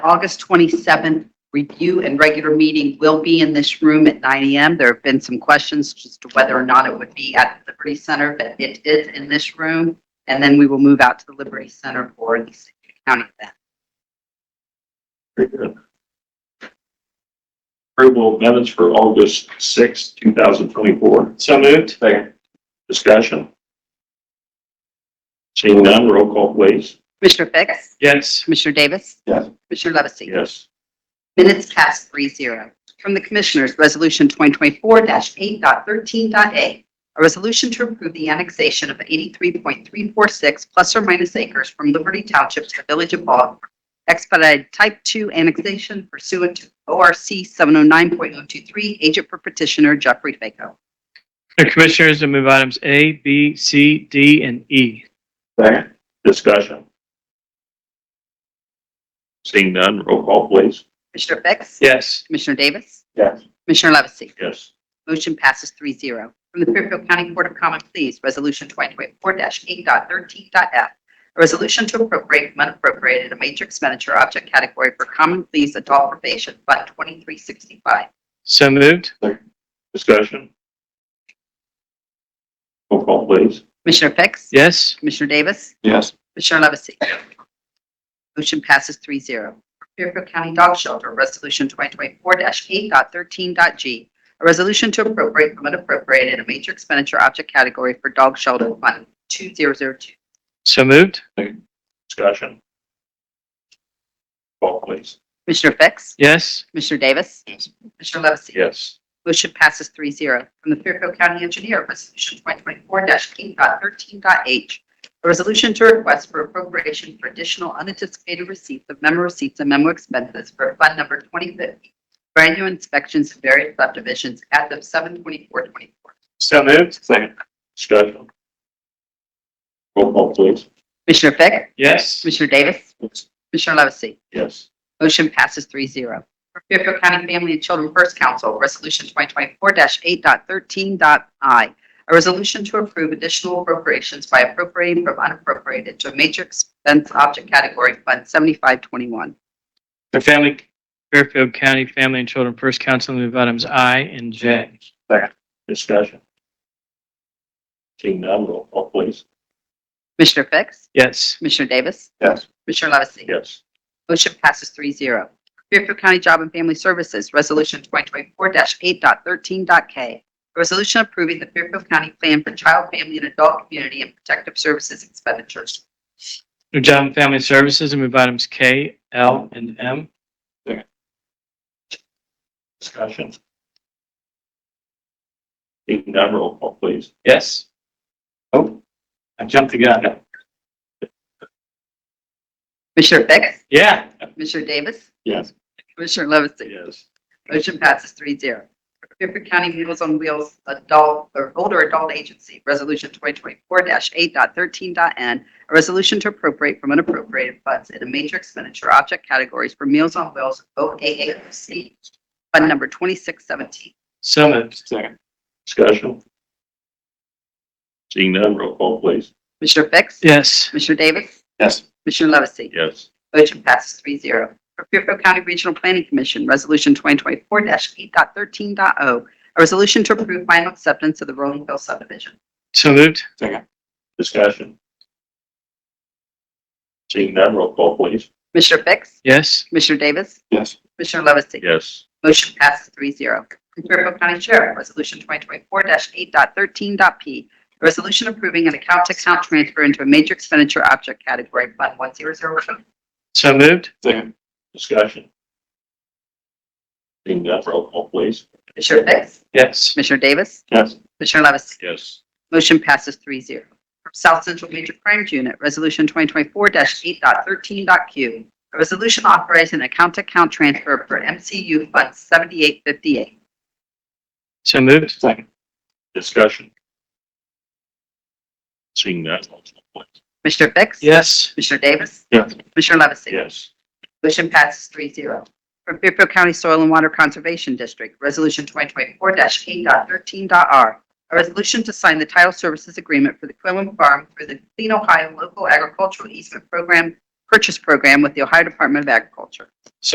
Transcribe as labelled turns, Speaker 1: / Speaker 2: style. Speaker 1: August 27th review and regular meeting will be in this room at 9 AM. There have been some questions as to whether or not it would be at the Liberty Center, but it is in this room. And then we will move out to the Liberty Center for the county event.
Speaker 2: Very good. Approval of minutes for August sixth, two 2024. So moved. Second. Discussion. Seeing none, roll call please.
Speaker 1: Commissioner Fix?
Speaker 2: Yes.
Speaker 1: Commissioner Davis?
Speaker 2: Yes.
Speaker 1: Commissioner Levesey?
Speaker 2: Yes.
Speaker 1: Minutes cast three zero. From the Commissioners, Resolution 2024-8.13.a. A resolution to approve the annexation of 83.346 plus or minus acres from Liberty Township to the Village of Baltimore. Expedited Type 2 annexation pursuant to ORC 709.023, agent for petitioner Jeffrey Faco.
Speaker 3: Commissioners, I move items A, B, C, D, and E.
Speaker 2: Second. Discussion. Seeing none, roll call please.
Speaker 1: Commissioner Fix?
Speaker 3: Yes.
Speaker 1: Commissioner Davis?
Speaker 2: Yes.
Speaker 1: Commissioner Levesey?
Speaker 2: Yes.
Speaker 1: Motion passes 3-0 From the Fairfield County Court of Common Pleas, Resolution 2024-8.13.f. A resolution to appropriate from unappropriated a major expenditure object category for Common Pleas Adult Probation Fund 2365.
Speaker 3: So moved?
Speaker 2: Discussion. Roll call please.
Speaker 1: Commissioner Fix?
Speaker 3: Yes.
Speaker 1: Commissioner Davis?
Speaker 2: Yes.
Speaker 1: Commissioner Levesey? Motion passes 3-0 Fairfield County Dog Shelter, Resolution 2024-8.13.g. A resolution to appropriate from unappropriated a major expenditure object category for Dog Shelter Fund 2002.
Speaker 3: So moved?
Speaker 2: Discussion. Roll Call please.
Speaker 1: Commissioner Fix?
Speaker 3: Yes.
Speaker 1: Commissioner Davis?
Speaker 2: Yes.
Speaker 1: Commissioner Levesey?
Speaker 2: Yes.
Speaker 1: Motion passes three zero. From the Fairfield County Engineer, Resolution 2024-8.13.h. A resolution to request for appropriation for additional unanticipated receipts of memo receipts and memo expenses for Fund Number 2050. For annual inspections of various subdivisions as of 7 24
Speaker 3: So moved?
Speaker 2: Second. Discussion. Roll call please.
Speaker 1: Commissioner Fix?
Speaker 3: Yes.
Speaker 1: Commissioner Davis? Commissioner Levesey?
Speaker 2: Yes.
Speaker 1: Motion passes 3-0. For Fairfield County Family and Children First Council, Resolution 2024-8.13.i. A resolution to approve additional appropriations by appropriating from unappropriated to a major expense object category Fund 7521.
Speaker 3: The family. Fairfield County Family and Children First Council, I move items I and J.
Speaker 2: Discussion. Seeing none, roll call please.
Speaker 1: Commissioner Fix?
Speaker 3: Yes.
Speaker 1: Commissioner Davis?
Speaker 2: Yes.
Speaker 1: Commissioner Levesey?
Speaker 2: Yes.
Speaker 1: Motion passes three zero. Fairfield County Job and Family Services, Resolution 2024-8.13.k. A resolution approving the Fairfield County Plan for Child, Family, and Adult Community and Protective Services expenditures.
Speaker 3: New Job and Family Services, I move items K, L, and M.
Speaker 2: Discussion. Seeing none, roll call please.
Speaker 3: Yes. Oh, I jumped the gun.
Speaker 1: Commissioner Fix?
Speaker 3: Yeah.
Speaker 1: Commissioner Davis?
Speaker 2: Yes.
Speaker 1: Commissioner Levesey?
Speaker 2: Yes.
Speaker 1: Motion passes three zero. Fairfield County Meals on Wheels Adult or Older Adult Agency, Resolution 2024-8.13.n. A resolution to appropriate from unappropriated funds in a major expenditure object categories for Meals on Wheels OAAC, Fund Number 2617.
Speaker 3: So moved? Second.
Speaker 2: Discussion. Seeing none, roll call please.
Speaker 1: Commissioner Fix?
Speaker 3: Yes.
Speaker 1: Commissioner Davis?
Speaker 2: Yes.
Speaker 1: Commissioner Levesey?
Speaker 2: Yes.
Speaker 1: Motion passes three zero. For Fairfield County Regional Planning Commission, Resolution 2024-8.13.o, oh. a resolution to approve final acceptance of the Rolling Hill subdivision.
Speaker 3: So moved?
Speaker 2: Discussion. Seeing none, roll call please.
Speaker 1: Commissioner Fix?
Speaker 3: Yes.
Speaker 1: Commissioner Davis?
Speaker 2: Yes.
Speaker 1: Commissioner Levesey?
Speaker 2: Yes.
Speaker 1: Motion passes three zero. From Fairfield County Sheriff, Resolution 2024-8.13.p, a resolution approving an account-to-account transfer into a major expenditure object category, Fund 1002.
Speaker 3: So moved?
Speaker 2: Second. Discussion. Seeing none, roll call please.
Speaker 1: Commissioner Fix?
Speaker 3: Yes.
Speaker 1: Commissioner Davis?
Speaker 2: Yes.
Speaker 1: Commissioner Levesey?
Speaker 2: Yes.
Speaker 1: Motion passes three zero. From South Central Major Crimes Unit, Resolution 2024-8.13.q, a resolution authorizing an account-to-account transfer for MCU Fund 7858.
Speaker 3: So moved?
Speaker 2: Second. Discussion. Seeing none, roll call please.
Speaker 1: Commissioner Fix?
Speaker 3: Yes.
Speaker 1: Commissioner Davis?
Speaker 2: Yes.
Speaker 1: Commissioner Levesey?
Speaker 2: Yes.
Speaker 1: Motion passes three zero. From Fairfield County Soil and Water Conservation District, Resolution 2024-8.13.r. A resolution to sign the title services agreement for the Quinlan Farm through the Clean Ohio Local Agricultural Easement Program Purchase Program with the Ohio Department of Agriculture.